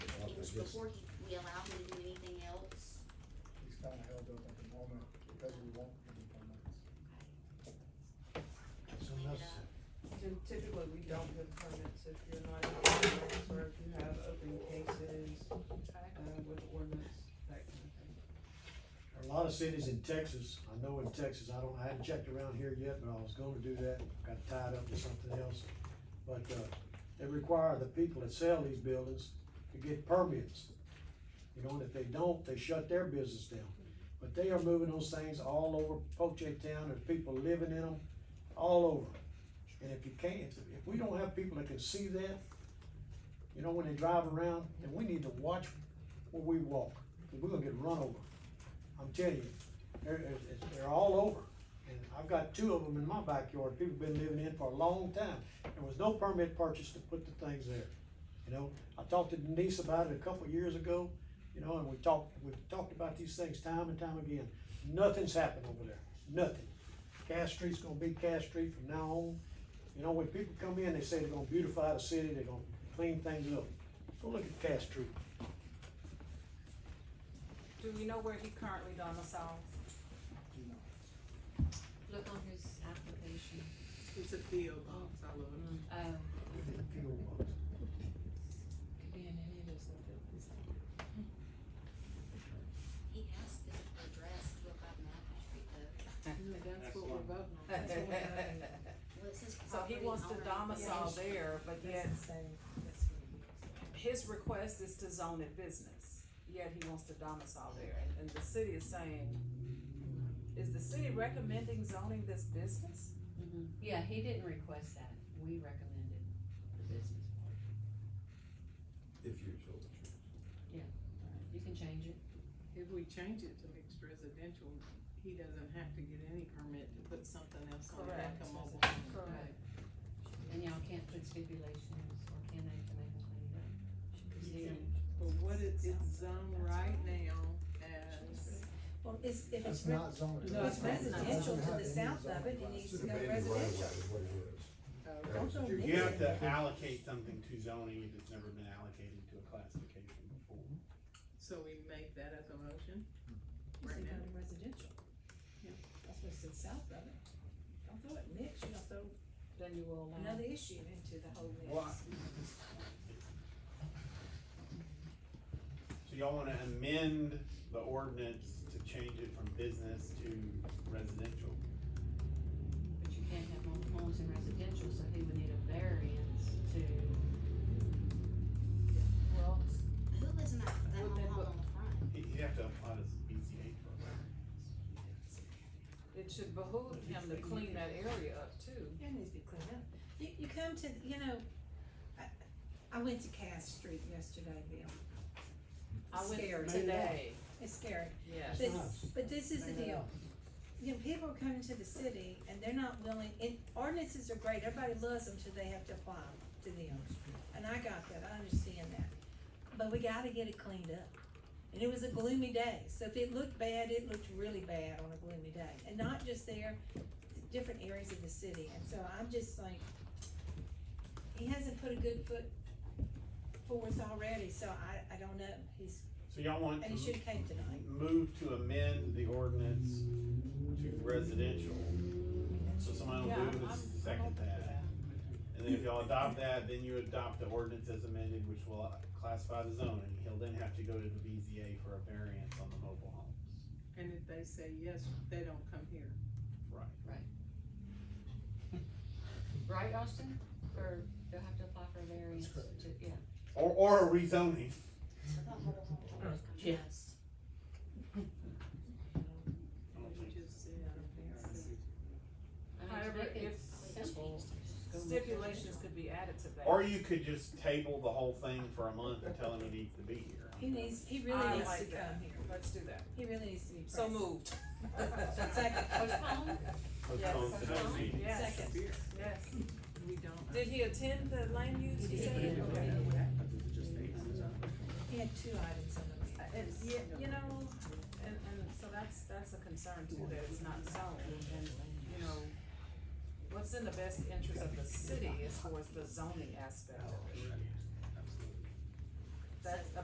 Because this- before he, we allow him to do anything else. He's kinda held up at the moment because we won't give him permits. So Clean it that's, up. And typically, we don't give permits if you're not in compliance or if you have open cases, uh, with ordinance, that kind of thing. there are a lot of cities in Texas, I know in Texas, I don't, I haven't checked around here yet, but I was gonna do that, got tied up with something else. But, uh, they require the people that sell these buildings to get permits. You know, and if they don't, they shut their business down. But they are moving those things all over Poche Town, there's people living in them, all over. And if you can't, if, if we don't have people that can see that, you know, when they drive around, then we need to watch where we walk, we we're gonna get run over. I'm telling you, they're, they're- they're all over. And I've got two of them in my backyard, people been living in for a long time. There was no permit purchased to put the things there. You know, I talked to Denise about it a couple of years ago, you know, and we talked, we talked about these things time and time again. Nothing's happened over there, nothing. Cass Street's gonna be Cass Street from now on. You know, when people come in, they say they're gonna beautify the city, they're gonna clean things up. Go look at Cass Street. Do we know where he currently domiciles? You know, Look on his application. It's a PO box, I love it. Oh, Fuel box. could be in any of those things. He has to address two oh five Maple Street though. That's what we're voting Well, it says So he property wants to owner domicile information. there, but yet his request is to zone it business, yet he wants to domicile there. And the city is saying, is the city recommending zoning this business? Mm-hmm. Yeah, he didn't request that, we recommended the business part. If you're told the truth. You can change it. If we change it to mixed residential, he doesn't have to get any permit to put something else on it, like a Correct. mobile home. Right. And y'all can't put stipulations or can they to make them clean it up? Because he- But what it, it's zoned right now as, Well, it's, if It's it's, re- not zoned. no, it's That's not- residential doesn't to have the any south of zoning it, it class. It's needs to an go abandoned right of way residential. is what it is. uh, That Don't was go your- near You it. have to allocate something to zoning if it's never been allocated to a classification before. so we make that as a motion It's right now. become residential. Yeah. That's what's in south of it. Don't throw it mixed, you know, throw Then you will uh, allow. another issue into the whole mix. Well, So y'all wanna amend the ordinance to change it from business to residential? But you can't have mobile homes in residential, so he would need a variance to, Well, Who lives in that, that Would they mobile home on the front? He- He'd have to apply to BCA for a variance. it should behoove him to clean that area up too. It needs to be cleaned up. You, you come to, you know, I, I went to Cass Street yesterday, Bill. I Scared. went today, It's scary. yes. But, nice. but this is the deal. You know, people are coming to the city and they're not willing, and ordinances are great, everybody loves them till they have to apply them to them. And I got that, I understand that, but we gotta get it cleaned up. And it was a gloomy day, so if it looked bad, it looked really bad on a gloomy day, and not just there, different areas of the city, and so I'm just like, he hasn't put a good foot forth already, so I, I don't know, he's, So y'all want and he to should've came tonight. move to amend the ordinance to residential? So someone will Yeah, move I'm- and I'm second open to that. And then if y'all adopt that, then you adopt the ordinance as amended, which will uh, classify the zoning. He'll then have to go to the BZA for a variance on the mobile homes. And if they say yes, they don't come here. Right. right, Austin? Or they'll have to apply for a variance to, correct. yeah. Or, or a rezoning. I thought mobile home owners come to Yeah. us. I don't We think just said, I mean, However, make it if simple. Just go make it Stipulations could be added to that. Or you could just table the whole thing for a month and tell him he needs to be here. He needs, he really I needs to like that. come here. Let's do that. He really needs to be So present. moved. Second. Postpone? Postpone Yes. the next meeting. Yes, Second. beer. yes. We don't. Did he attend the land use? He you said? did. Okay. He had two items on the list. And, yeah, you know, and, and so that's, that's a concern too, that it's not zoned, and, you know, what's in the best interest of the city as far as the zoning aspect of it? That's,